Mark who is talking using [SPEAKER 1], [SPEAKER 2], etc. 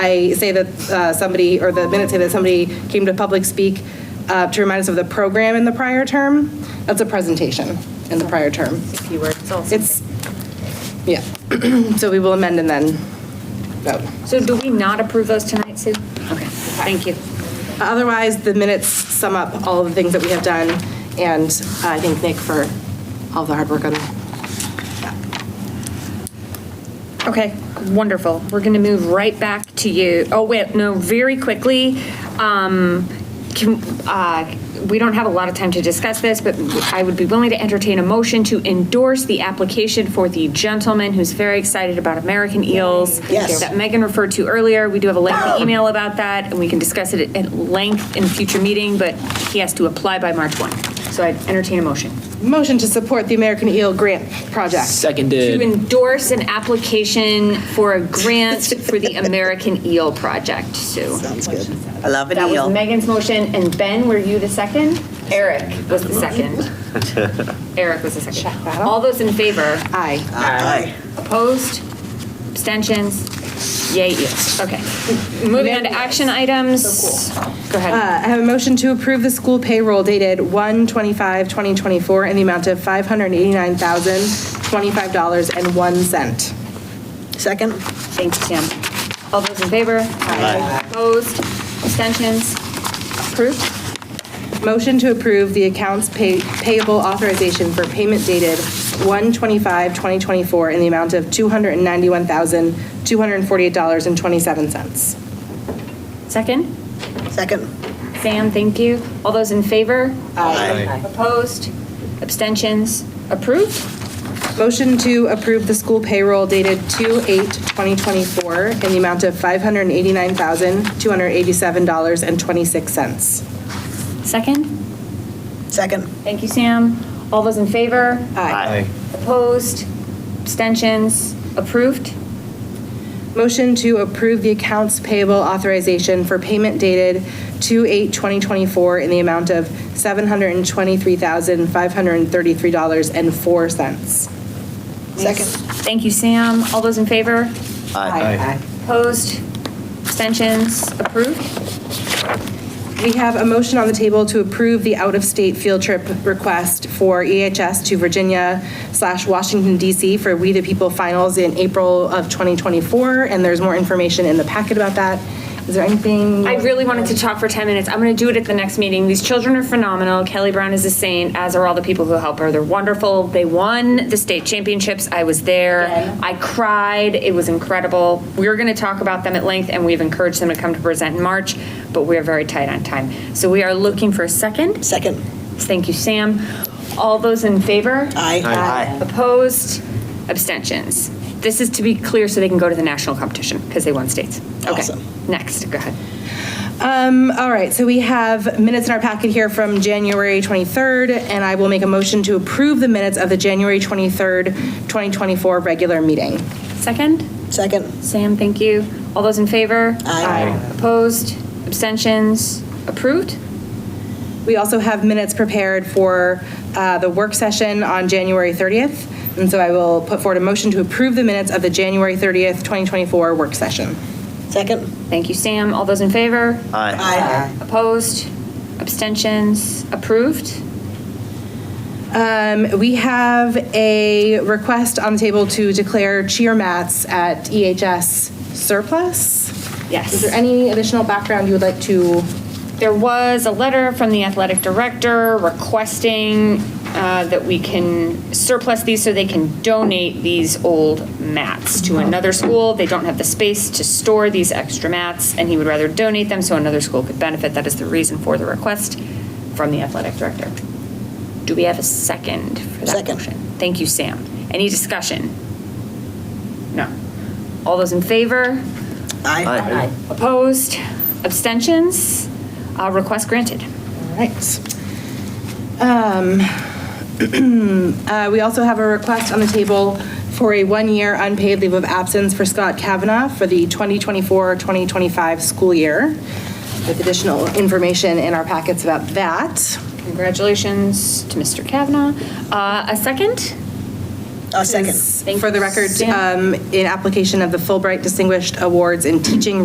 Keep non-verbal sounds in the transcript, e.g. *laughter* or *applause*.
[SPEAKER 1] I say that uh, somebody, or the minutes say that somebody came to public speak uh, to remind us of the program in the prior term. That's a presentation in the prior term.
[SPEAKER 2] keyword. It's also.
[SPEAKER 1] It's, yeah, *clears throat* so we will amend and then vote.
[SPEAKER 2] So do we not approve those tonight, Sue? Okay, thank you.
[SPEAKER 1] Otherwise, the minutes sum up all of the things that we have done, and uh, I thank Nick for all the hard work on
[SPEAKER 2] Okay, wonderful. We're going to move right back to you. Oh, wait, no, very quickly. um, can- uh, We don't have a lot of time to discuss this, but I would be willing to entertain a motion to endorse the application for the gentleman who's very excited about American eels.
[SPEAKER 3] Yes.
[SPEAKER 2] That Megan referred to earlier. We do have a lengthy email about that, and we can discuss it at length in a future meeting, but he has to apply by March 1. So I'd entertain a motion.
[SPEAKER 1] Motion to support the American Eel Grant Project.
[SPEAKER 2] to
[SPEAKER 4] Seconded.
[SPEAKER 2] endorse an application for a
[SPEAKER 3] *laughs*
[SPEAKER 2] grant for the American Eel Project, Sue.
[SPEAKER 3] Sounds good. I love an
[SPEAKER 2] That
[SPEAKER 3] eel.
[SPEAKER 2] was Megan's motion, and Ben, were you the second? Eric was the
[SPEAKER 3] *laughs*
[SPEAKER 2] second. Eric was the second. All those in favor?
[SPEAKER 1] Aye.
[SPEAKER 3] Aye.
[SPEAKER 2] Opposed? Abstentions? Yay, yes. Okay. Moving on to action items. Go ahead.
[SPEAKER 1] I have a motion to approve the school payroll dated 1/25/2024 in the amount of $589,025.01.
[SPEAKER 3] Second?
[SPEAKER 2] Thank you, Sam. All those in favor? Aye. Opposed? Abstentions? Approved?
[SPEAKER 1] Motion to approve the accounts pay- payable authorization for payment dated 1/25/2024 in the amount of $291,248.27.
[SPEAKER 2] Second?
[SPEAKER 3] Second.
[SPEAKER 2] Sam, thank you. All those in favor? Aye. Opposed? Abstentions? Approved?
[SPEAKER 1] Motion to approve the school payroll dated 2/8/2024 in the amount of $589,287.26.
[SPEAKER 2] Second?
[SPEAKER 3] Second.
[SPEAKER 2] Thank you, Sam. All those in favor?
[SPEAKER 4] Aye.
[SPEAKER 2] Opposed? Abstentions? Approved?
[SPEAKER 1] Motion to approve the accounts payable authorization for payment dated 2/8/2024 in the amount of $723,533.04.
[SPEAKER 3] Second.
[SPEAKER 2] Thank you, Sam. All those in favor?
[SPEAKER 4] Aye.
[SPEAKER 2] Opposed? Abstentions? Approved?
[SPEAKER 1] We have a motion on the table to approve the out-of-state field trip request for EHS to Virginia slash Washington DC for We the People Finals in April of 2024, and there's more information in the packet about that. Is there anything?
[SPEAKER 2] I really wanted to talk for 10 minutes. I'm going to do it at the next meeting. These children are phenomenal. Kelly Brown is a saint, as are all the people who help her. They're wonderful. They won the state championships. I was there. I cried. It was incredible. We're going to talk about them at length, and we've encouraged them to come to present in March, but we are very tight on time. So we are looking for a second.
[SPEAKER 3] Second.
[SPEAKER 2] Thank you, Sam. All those in favor?
[SPEAKER 3] Aye.
[SPEAKER 2] Opposed? Abstentions? This is to be clear so they can go to the national competition because they won states. Okay.
[SPEAKER 3] Awesome.
[SPEAKER 2] Next, go ahead.
[SPEAKER 1] Um, all right, so we have minutes in our packet here from January 23rd, and I will make a motion to approve the minutes of the January 23rd, 2024 regular meeting.
[SPEAKER 2] Second?
[SPEAKER 3] Second.
[SPEAKER 2] Sam, thank you. All those in favor?
[SPEAKER 3] Aye.
[SPEAKER 2] Opposed? Abstentions? Approved?
[SPEAKER 1] We also have minutes prepared for uh, the work session on January 30th, and so I will put forward a motion to approve the minutes of the January 30th, 2024 work session.
[SPEAKER 3] Second.
[SPEAKER 2] Thank you, Sam. All those in favor?
[SPEAKER 4] Aye.
[SPEAKER 3] Aye.
[SPEAKER 2] Opposed? Abstentions? Approved?
[SPEAKER 1] Um, We have a request on the table to declare cheer mats at EHS surplus.
[SPEAKER 2] Yes.
[SPEAKER 1] Is there any additional background you would like to
[SPEAKER 2] There was a letter from the athletic director requesting uh, that we can surplus these so they can donate these old mats to another school. They don't have the space to store these extra mats, and he would rather donate them so another school could benefit. That is the reason for the request from the athletic director. Do we have a second for that
[SPEAKER 3] Second.
[SPEAKER 2] motion? Thank you, Sam. Any discussion? No. All those in favor?
[SPEAKER 3] Aye.
[SPEAKER 2] Opposed? Abstentions? Uh, Request granted.
[SPEAKER 1] All right. Um, *clears throat* uh, We also have a request on the table for a one-year unpaid leave of absence for Scott Kavanaugh for the 2024-2025 school year, with additional information in our packets about that.
[SPEAKER 2] Congratulations to Mr. Kavanaugh. Uh, A second?
[SPEAKER 3] Uh, second.
[SPEAKER 1] For the record,
[SPEAKER 2] Sam.
[SPEAKER 1] um, in application of the Fulbright Distinguished Awards in Teaching